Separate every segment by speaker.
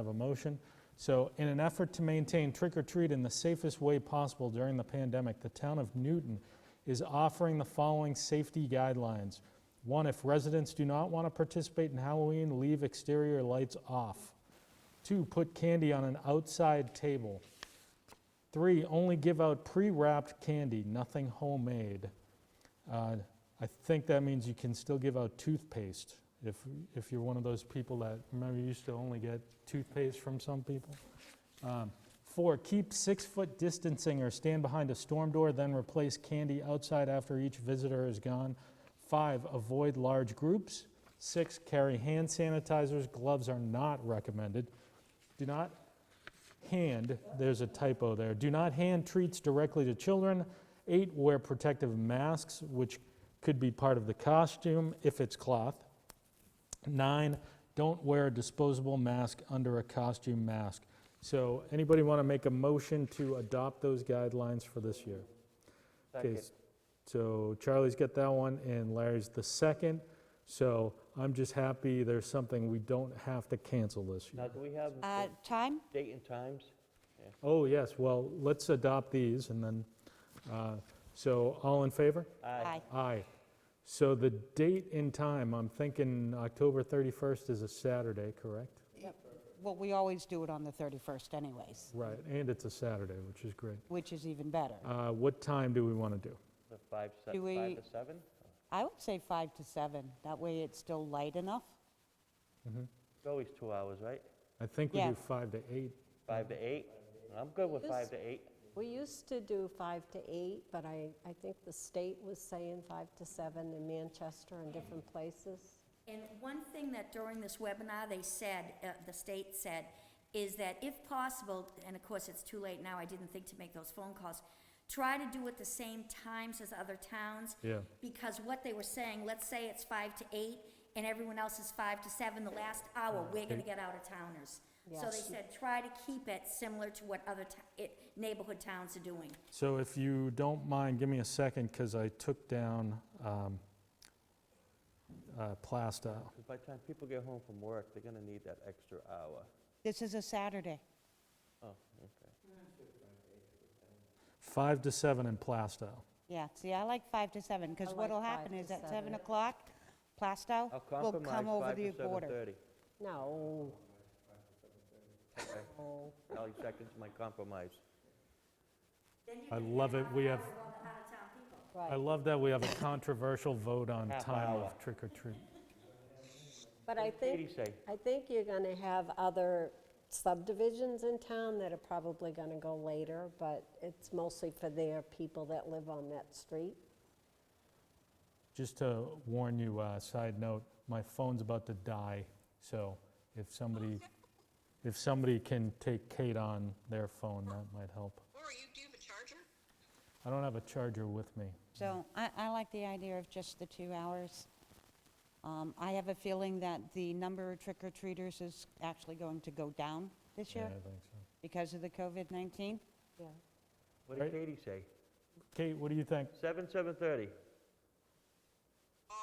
Speaker 1: Have a motion. So in an effort to maintain trick or treat in the safest way possible during the pandemic, the town of Newton is offering the following safety guidelines. One, if residents do not want to participate in Halloween, leave exterior lights off. Two, put candy on an outside table. Three, only give out pre-wrapped candy, nothing homemade. Uh, I think that means you can still give out toothpaste if, if you're one of those people that, remember you used to only get toothpaste from some people? Um, Four, keep six-foot distancing or stand behind a storm door, then replace candy outside after each visitor is gone. Five, avoid large groups. Six, carry hand sanitizers, gloves are not recommended. Do not hand, there's a typo there, do not hand treats directly to children. Eight, wear protective masks, which could be part of the costume if it's cloth. Nine, don't wear a disposable mask under a costume mask. So anybody want to make a motion to adopt those guidelines for this year? Okay,
Speaker 2: Second.
Speaker 1: So Charlie's got that one, and Larry's the second. So I'm just happy there's something we don't have to cancel this
Speaker 2: Now,
Speaker 1: year.
Speaker 2: do we have the
Speaker 3: Uh, Time?
Speaker 2: date and times?
Speaker 1: Oh, yes, well, let's adopt these, and then, uh, so all in favor?
Speaker 3: Aye.
Speaker 1: Aye. So the date and time, I'm thinking October 31st is a Saturday, correct?
Speaker 3: Well, we always do it on the 31st anyways,
Speaker 1: Right, and it's a Saturday, which is great.
Speaker 3: which is even better.
Speaker 1: Uh, What time do we want to do?
Speaker 2: The five, se-
Speaker 3: Do
Speaker 2: five
Speaker 3: we-
Speaker 2: to seven?
Speaker 3: I would say 5 to 7. That way it's still light enough.
Speaker 2: It's always two hours, right?
Speaker 1: I think we
Speaker 3: Yeah.
Speaker 1: do 5 to 8.
Speaker 2: Five to eight? I'm good with five to eight.
Speaker 4: We used to do five to eight, but I, I think the state was saying five to seven in Manchester and different places.
Speaker 5: And one thing that during this webinar they said, uh, the state said, is that if possible, and of course it's too late now, I didn't think to make those phone calls, try to do it the same times as other towns.
Speaker 1: Yeah.
Speaker 5: Because what they were saying, let's say it's five to eight and everyone else is five to seven, the last hour, we're gonna get out of towners. So they
Speaker 4: Yes.
Speaker 5: said, try to keep it similar to what other to- it, neighborhood towns are doing.
Speaker 1: So if you don't mind, give me a second, because I took down um, uh, Plastow.
Speaker 2: 'Cause By the time people get home from work, they're gonna need that extra hour.
Speaker 3: This is a Saturday.
Speaker 2: Oh, okay.
Speaker 1: 5 to 7 in Plastow.
Speaker 3: Yeah, see, I like 5 to 7,
Speaker 4: I
Speaker 3: because
Speaker 4: like
Speaker 3: what'll
Speaker 4: five
Speaker 3: happen
Speaker 4: to
Speaker 3: is at 7
Speaker 4: seven.
Speaker 3: o'clock, Plastow
Speaker 2: I'll
Speaker 3: will
Speaker 2: compromise
Speaker 3: come over
Speaker 2: five
Speaker 3: the
Speaker 2: to
Speaker 3: border.
Speaker 2: 7:30.
Speaker 4: No.
Speaker 2: Okay.
Speaker 4: No.
Speaker 2: Ally seconds my compromise.
Speaker 1: I love it, we have, I
Speaker 4: Right.
Speaker 1: love that we have a controversial vote on
Speaker 2: Half
Speaker 1: time
Speaker 2: hour.
Speaker 1: of trick or treat.
Speaker 4: But I
Speaker 2: Katie
Speaker 4: think,
Speaker 2: say,
Speaker 4: I think you're going to have other subdivisions in town that are probably going to go later, but it's mostly for their people that live on that street.
Speaker 1: Just to warn you, uh, side note, my phone's about to die, so if somebody, if somebody can take Kate on their phone, that might help.
Speaker 6: Laura, you do have a charger?
Speaker 1: I don't have a charger with me.
Speaker 3: So I, I like the idea of just the two hours. Um, I have a feeling that the number of trick-or-treaters is actually going to go down this
Speaker 1: Yeah, I
Speaker 3: year
Speaker 1: think so.
Speaker 3: because of the COVID-19.
Speaker 4: Yeah.
Speaker 2: what did
Speaker 1: Right.
Speaker 2: Katie say?
Speaker 1: Kate, what do you think?
Speaker 2: Seven, 7:30.
Speaker 6: Uh,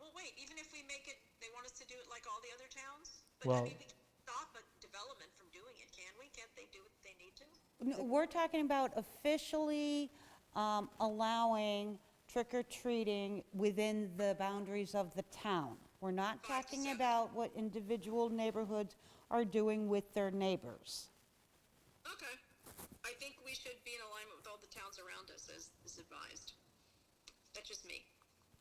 Speaker 6: well, wait, even if we make it, they want us to do it like all the other towns?
Speaker 1: Well-
Speaker 6: But I mean, we can't stop a development from doing it, can we? Can't they do what they need to?
Speaker 3: No, We're talking about officially um, allowing trick-or-treating within the boundaries of the town. We're not talking about what individual neighborhoods are doing with their neighbors.
Speaker 6: Okay. I think we should be in alignment with all the towns around us as is advised. That's just me.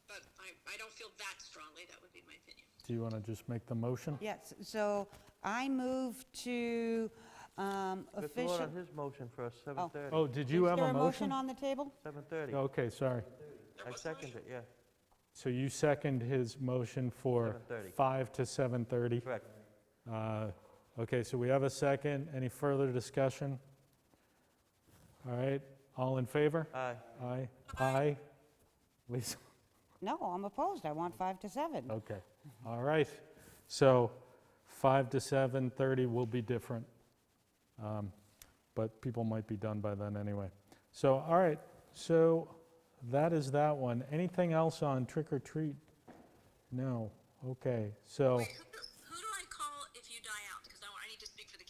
Speaker 6: But I, I don't feel that strongly, that would be my opinion.
Speaker 1: Do you want to just make the motion?
Speaker 3: Yes, so I move to um,
Speaker 2: Let's vote
Speaker 3: official...
Speaker 2: on his motion first, 7:30.
Speaker 1: Oh, did you
Speaker 3: Is
Speaker 1: have
Speaker 3: there
Speaker 1: a motion?
Speaker 3: on the table?
Speaker 2: 7:30.
Speaker 1: Okay, sorry.
Speaker 2: I second it, yeah,
Speaker 1: So you second his motion for
Speaker 2: 7:30.
Speaker 1: 5 to 7:30?
Speaker 2: correct.
Speaker 1: Uh, Okay, so we have a second. Any further discussion? All right, all in favor?
Speaker 2: Aye.
Speaker 1: Aye. Aye. Lisa?
Speaker 3: No, I'm opposed. I want five to seven.
Speaker 1: Okay, all right. So 5 to 7:30 will be different, Um, but people might be done by then anyway. So, all right, so that is that one. Anything else on trick or treat? No, okay, so
Speaker 6: Who,